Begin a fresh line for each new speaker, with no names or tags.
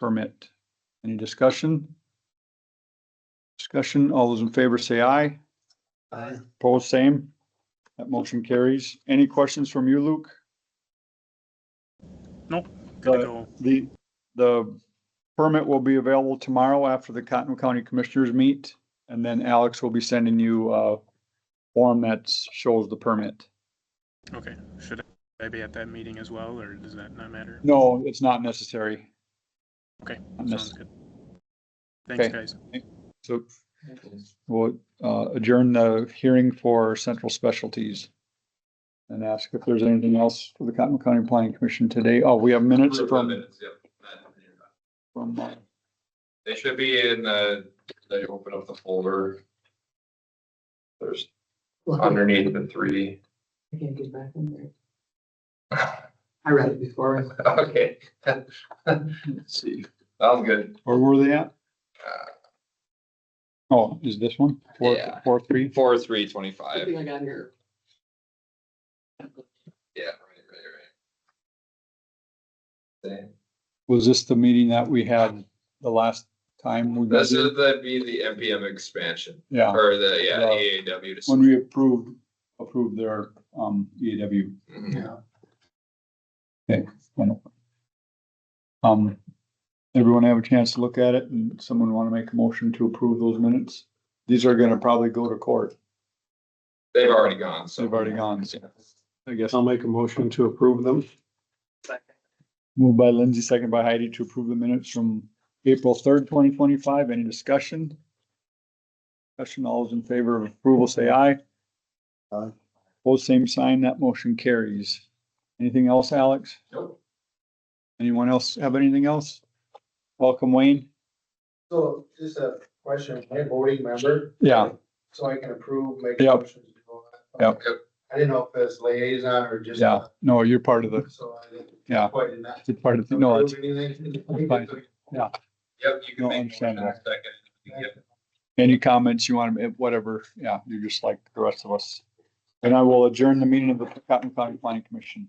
permit. Any discussion? Discussion, all those in favor say aye.
Aye.
Opposed, same. That motion carries. Any questions from you, Luke?
Nope, Gotta
Uh,
go.
The, the permit will be available tomorrow after the Cottonwood County Commissioners meet. And then Alex will be sending you a form that shows the permit.
Okay, should I be at that meeting as well, or does that not matter?
No, it's not necessary.
Okay,
Not
Sounds
necessary.
good. Thanks,
Okay.
guys.
So we'll uh, adjourn the hearing for central specialties. And ask if there's anything else for the Cottonwood County Planning Commission today. Oh, we have minutes
Approve the
from,
minutes, yep.
from, uh,
They should be in the, they open up the folder. There's underneath the three.
I can't get back in there. I read it before.
Okay.
let's see,
Sounds good.
where were they at?
Uh,
Oh, is this one? Four,
Yeah.
four, three?
Four, three,
I
twenty-five.
think I got here.
Yeah, right, right, right. Okay.
Was this the meeting that we had the last time? we
This
did it?
is, that'd be the MPM expansion,
Yeah,
or the, yeah,
Yeah.
AAW. to-
when we approved, approved their, um, EAW.
Mhm.
Wonderful. Um, everyone have a chance to look at it and someone want to make a motion to approve those minutes? These are gonna probably go to court.
They've already gone, so.
They've already gone, so. I guess
I'll make a motion to approve them.
moved by Lindsay, second by Heidi to approve the minutes from April third, twenty twenty-five. Any discussion? Discussion, all those in favor of approval, say aye.
Aye.
Both same sign, that motion carries. Anything else, Alex?
Nope.
Anyone else have anything else? Welcome, Wayne.
So just a question, am I a voting member?
Yeah.
So I can approve, make.
Yep.
motions and all that?
Yep.
Yep.
I didn't know if it's liaison or just.
Yeah, no, you're part of the,
So I didn't.
Yeah.
Quite did not.
it's part of, the no, it's,
approve anything.
it's fine.
Yep, you
No,
can make a motion in
understandable.
a second. Yep.
any comments you want, to whatever, yeah, you're just like the rest of us. And I will adjourn the meeting of the Cotton County Planning Commission.